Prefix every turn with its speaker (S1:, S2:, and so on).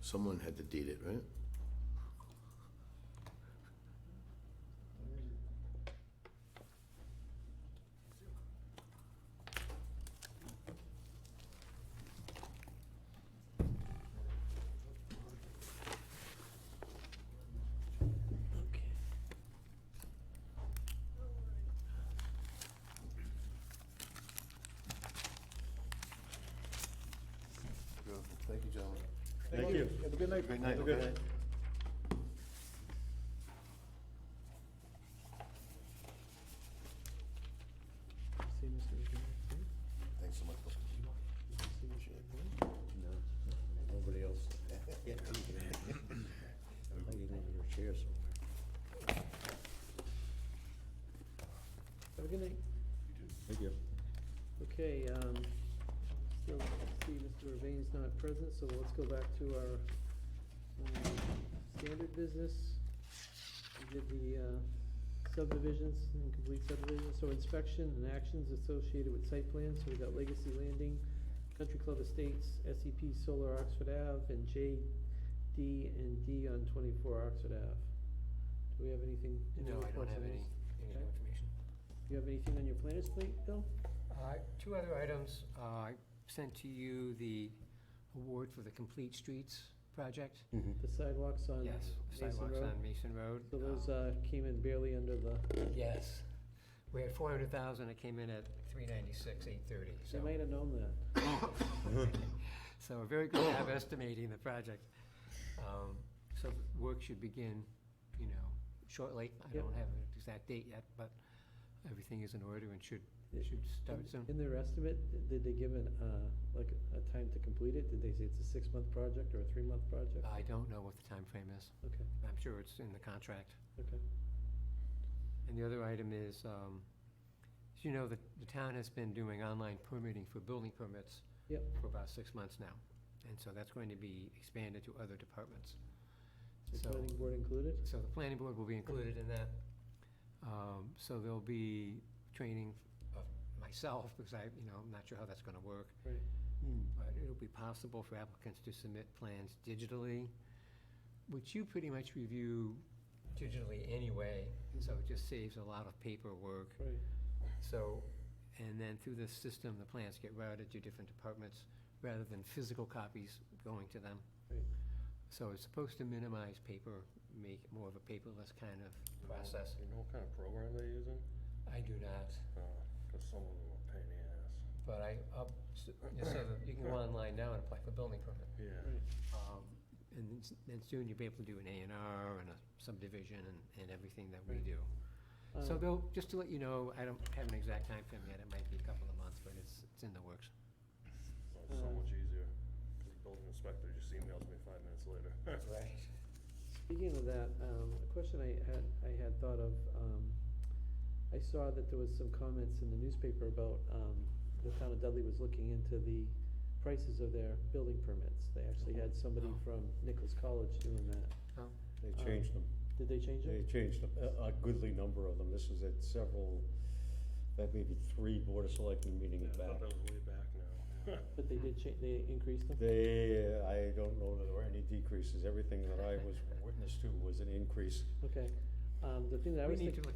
S1: Someone had to deed it, right? Beautiful. Thank you, gentlemen.
S2: Thank you.
S3: Have a good night.
S1: Great night.
S2: Have a good
S1: okay?
S2: night.
S3: See Mr. McGinnis, too?
S1: Thanks so much.
S3: See Mr. McGinnis?
S4: No, nobody else. I think he's under your chair somewhere.
S3: Have a good night.
S4: Thank you.
S3: Okay, um, so, see, Mr. Ravain's not present, so let's go back to our, um, standard business. We did the, uh, subdivisions, and complete subdivisions, so inspection and actions associated with site plans, so we got Legacy Landing, Country Club Estates, SEP Solar Oxford Ave, and J D and D on twenty-four Oxford Ave. Do we have anything? any
S5: No, I don't
S3: reports on
S5: have any,
S3: these?
S5: any
S3: Okay.
S5: new information.
S3: Do you have anything on your planners plate, Bill?
S5: Uh, Two other items. Uh, I sent to you the award for the Complete Streets project.
S3: The sidewalks on
S5: Yes,
S3: Mason
S5: sidewalks
S3: Road?
S5: on Mason Road.
S3: So
S5: Uh,
S3: those uh, came in barely under the,
S5: Yes. We had four hundred thousand, it came in at three ninety-six, eight thirty,
S3: they
S5: so.
S3: might have known that.
S5: So we're very good at estimating the project. Um, So work should begin, you know, shortly. I
S3: Yep.
S5: don't have an exact date yet, but everything is in order and should,
S3: It-
S5: should start soon.
S3: In their estimate, did they give an, uh, like, a time to complete it? Did they say it's a six-month project or a three-month project?
S5: I don't know what the time frame is.
S3: Okay,
S5: I'm sure it's in the contract.
S3: okay.
S5: And the other item is, um, as you know, the, the town has been doing online permitting for building permits.
S3: Yep.
S5: For about six months now, and so that's going to be expanded to other departments.
S3: Is
S5: So-
S3: planning board included?
S5: So the planning board will be included in that. Um, so there'll be training of myself, because I, you know, I'm not sure how that's gonna work.
S3: Right.
S5: But it'll be possible for applicants to submit plans digitally, which you pretty much review digitally anyway, so it just saves a lot of paperwork.
S3: Right,
S5: So, and then through this system, the plans get routed to different departments rather than physical copies going to them.
S3: Right.
S5: So it's supposed to minimize paper, make it more of a paperless kind of process.
S2: You know what kind of program they're using?
S5: I do not,
S2: Because some of them are pain in the ass.
S5: but I, up, so so that you can go online now and apply for building permit.
S2: Yeah.
S3: right.
S5: Um, And then s- then soon you'll be able to do an A and R and a subdivision and, and everything that we
S3: Right.
S5: do. So
S3: Um,
S5: though, just to let you know, I don't have an exact time frame yet, it might be a couple of months, but it's, it's in the works.
S2: So It's so
S3: Uh,
S2: much easier. Because the building inspector just emails me five minutes later.
S5: Right.
S3: Speaking of that, um, a question I had, I had thought of, um, I saw that there was some comments in the newspaper about, um, the town of Dudley was looking into the prices of their building permits. They actually had somebody
S5: Oh.
S3: from Nichols College doing that.
S4: They changed them,
S3: Did they change
S4: they
S3: it?
S4: changed them, a, a goodly number of them. This is at several, that may be three Board of Selectmen
S2: Yeah,
S4: meetings
S2: I thought
S4: back.
S2: that was way back now.
S3: But they did cha- they increased them?
S4: They, I don't know that there were any decreases. Everything that I was witness to was an increase.
S3: Okay. Um, the thing that I
S5: We
S3: was thinking.
S5: need to look